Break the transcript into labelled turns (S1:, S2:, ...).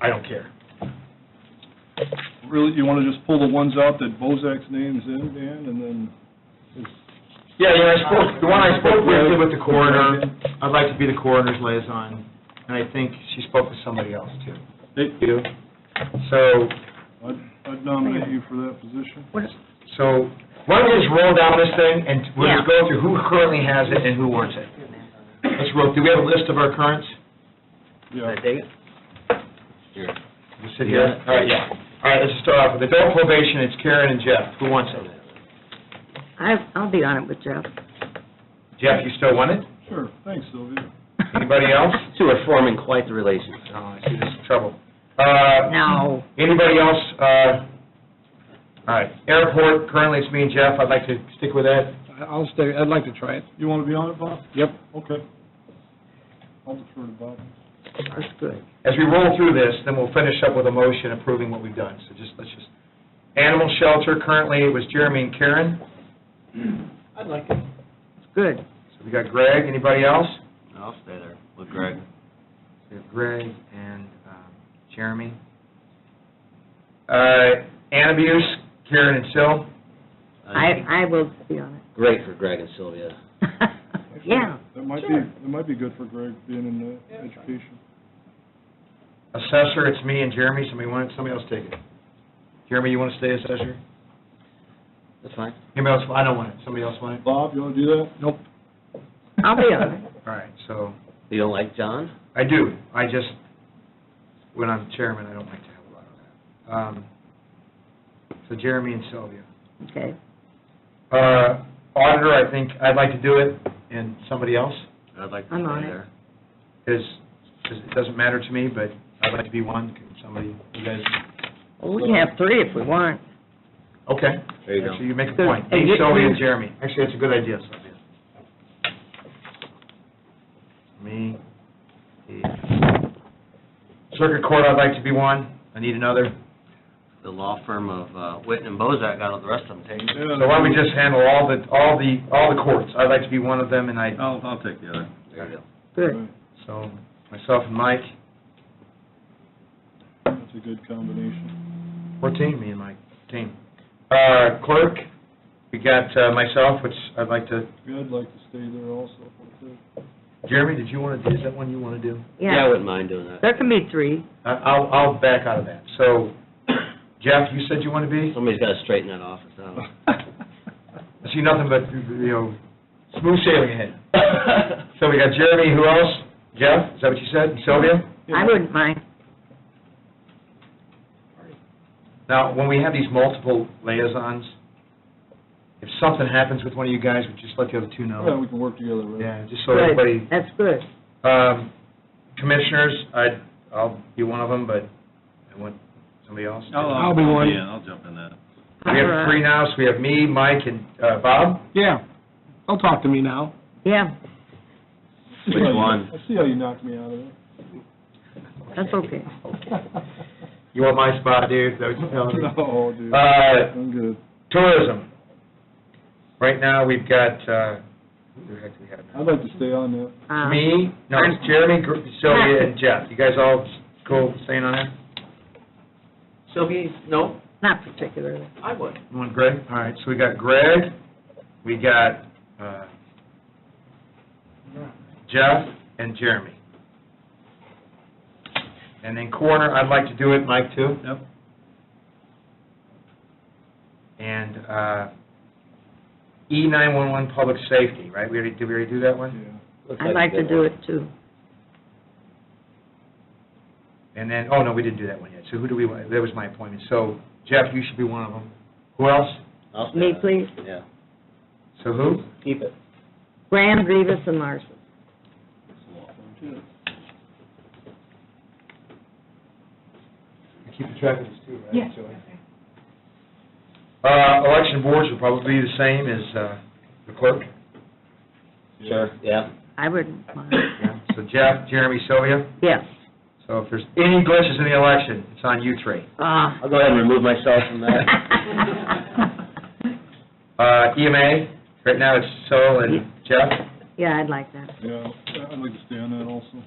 S1: I don't care.
S2: Really, you want to just pull the ones out that Bozak's name's in, Dan, and then,
S1: Yeah, you know, I spoke, the one I spoke briefly with the coroner, I'd like to be the coroner's liaison, and I think she spoke with somebody else too.
S2: hey,
S1: You? So,
S2: I'd- I'd nominate you for that position.
S1: so, why don't we just roll down this thing, and we'll just go through who currently has it and who wants it. Let's roll, do we have a list of our currents?
S2: Yeah,
S1: Just sit here? All right, yeah. All right, let's just start off with adult probation, it's Karen and Jeff, who wants it?
S3: I, I'll be on it with Jeff.
S1: Jeff, you still want it?
S2: sure, thanks, Sylvia.
S1: Anybody else?
S4: Two are forming quite the relationship.
S1: No, Oh, I see this is trouble. Uh,
S3: No.
S1: Anybody else? uh, All right, airport, currently it's me and Jeff, I'd like to stick with that.
S5: I'll stay, I'd like to try it.
S2: You want to be on it, Bob?
S5: Yep.
S2: Okay. I'll defer to Bob.
S3: That's good.
S1: As we roll through this, then we'll finish up with a motion approving what we've done, so just, let's just, animal shelter, currently it was Jeremy and Karen,
S6: I'd like it.
S3: It's good.
S1: so we got Greg, anybody else?
S4: I'll Oh, stay there with Greg.
S1: We have Greg and um, Jeremy. Uh, An abuse, Karen and Sil.
S3: I, I will be on
S4: Great for Greg and Sylvia.
S3: it. Yeah.
S2: That might be,
S6: Sure.
S2: that might be good for Greg, being in the
S6: Yeah, that's fine.
S2: education.
S1: Assessor, it's me and Jeremy, somebody want, somebody else take it. Jeremy, you want to stay assessor?
S4: That's fine.
S1: Anybody else, I don't want it, somebody else want it?
S2: Bob, you want to do that? Nope.
S3: I'll be on it.
S1: All right, so,
S4: You don't like John?
S1: I do, I just, when I'm chairman, I don't like to have a lot of that. Um, So Jeremy and Sylvia.
S3: Okay.
S1: Uh, Auditor, I think, I'd like to do it, and somebody else,
S4: I'd like
S3: I'm on it.
S1: because it doesn't matter to me, but I'd like to be one, Can somebody, you guys,
S3: Well, we can have three if we want.
S1: okay.
S4: There you go.
S1: Actually, you make a point,
S3: And
S1: me,
S3: you-
S1: Sylvia, and Jeremy. Actually, that's a good idea, Sylvia. Me, Steve. Circuit Court, I'd like to be one, I need another.
S4: The law firm of uh, Witten and Bozak got all the rest of them taken.
S2: Yeah.
S1: So why don't we just handle all the, all the, all the courts? I'd like to be one of them, and I,
S2: Oh.
S7: I'll, I'll take the other.
S4: There you go.
S3: Good.
S1: so, myself and Mike,
S2: That's a good combination.
S1: we're a team, me and Mike, team. Uh, clerk, we got uh, myself, which I'd like to,
S2: Yeah, I'd like to stay there also, if I could.
S1: Jeremy, did you want to do, is that one you want to do?
S4: I
S3: Yeah.
S4: wouldn't mind doing that.
S3: There can be three.
S1: I- I'll, I'll back out of that. So, Jeff, you said you want to be?
S4: Somebody's got to straighten that office out.
S1: I see nothing but, you know, smooth sailing ahead. So we got Jeremy, who else? Jeff, is that what you said? And Sylvia?
S3: I wouldn't mind.
S1: Now, when we have these multiple liaisons, if something happens with one of you guys, we just let the other two
S2: Yeah,
S1: know.
S2: we can work together, right?
S1: Yeah, just so
S3: Good.
S1: everybody,
S3: That's good.
S1: um, commissioners, I'd, I'll be one of them, but I want somebody else. to-
S5: I'll be one.
S7: Yeah, I'll jump in that.
S1: We have three now, so we have me, Mike, and, uh, Bob.
S5: Yeah, don't talk to me now.
S3: Yeah,
S2: I see
S4: Which
S2: how you-
S4: one?
S2: I see how you knocked me out of it.
S3: that's okay.
S1: You want my spot, dude? That was-
S2: No, Oh, dude,
S1: Uh,
S2: I'm good.
S1: tourism. Right now, we've got, uh, who the heck do we have
S2: I'd
S1: now?
S2: like to stay on that.
S3: Uh,
S1: Me, no, it's Jeremy, Gr- Sylvia, and Jeff. You guys all cool staying on that?
S4: Sylvia, no,
S3: Not particularly.
S4: I would.
S1: You want Greg? All right, so we got Greg, we got, uh, Jeff and Jeremy. And then corner, I'd like to do it, Mike, too.
S2: Yep.
S1: And, uh, E nine-one-one public safety, right? We already, did we already do that one?
S2: Yeah.
S3: I'd like to do it too.
S1: And then, oh, no, we didn't do that one yet. So who do we, want? that was my appointment. So Jeff, you should be one of them. Who else?
S4: I'll stay
S3: Me,
S4: on it.
S3: please.
S4: Yeah.
S1: So who?
S4: Keep it.
S3: Graham, Rivas, and Larson.
S1: Keep track of this too, right?
S6: Yeah.
S1: Joey? Uh, election boards will probably be the same as, uh, the clerk.
S4: Sure, yeah.
S3: I wouldn't mind.
S1: So Jeff, Jeremy, Sylvia.
S3: Yes.
S1: So if there's any glitches in the election, it's on you three.
S3: Ah.
S4: I'll go ahead and remove myself from that.
S1: Uh, EMA, right now it's Sol and Jeff.
S3: Yeah, I'd like that.
S2: Yeah, I'd like to stay on that also.